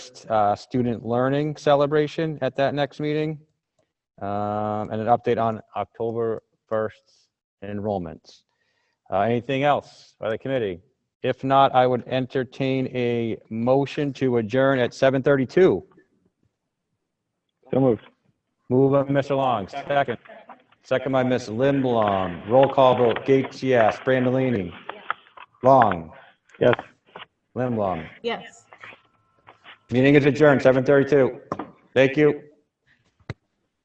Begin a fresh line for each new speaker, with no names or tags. first uh, student learning celebration at that next meeting. Um, And an update on October 1st enrollments. Uh, Anything else by the committee? If not, I would entertain a motion to adjourn at 7:32.
So moved.
Move by Mr. Long, second. Second by Ms. Lindblom. Roll call vote, Gates, yes. Brandolini. Long,
Yes.
Lindblom.
Yes.
Meeting is adjourned, 7:32. Thank you.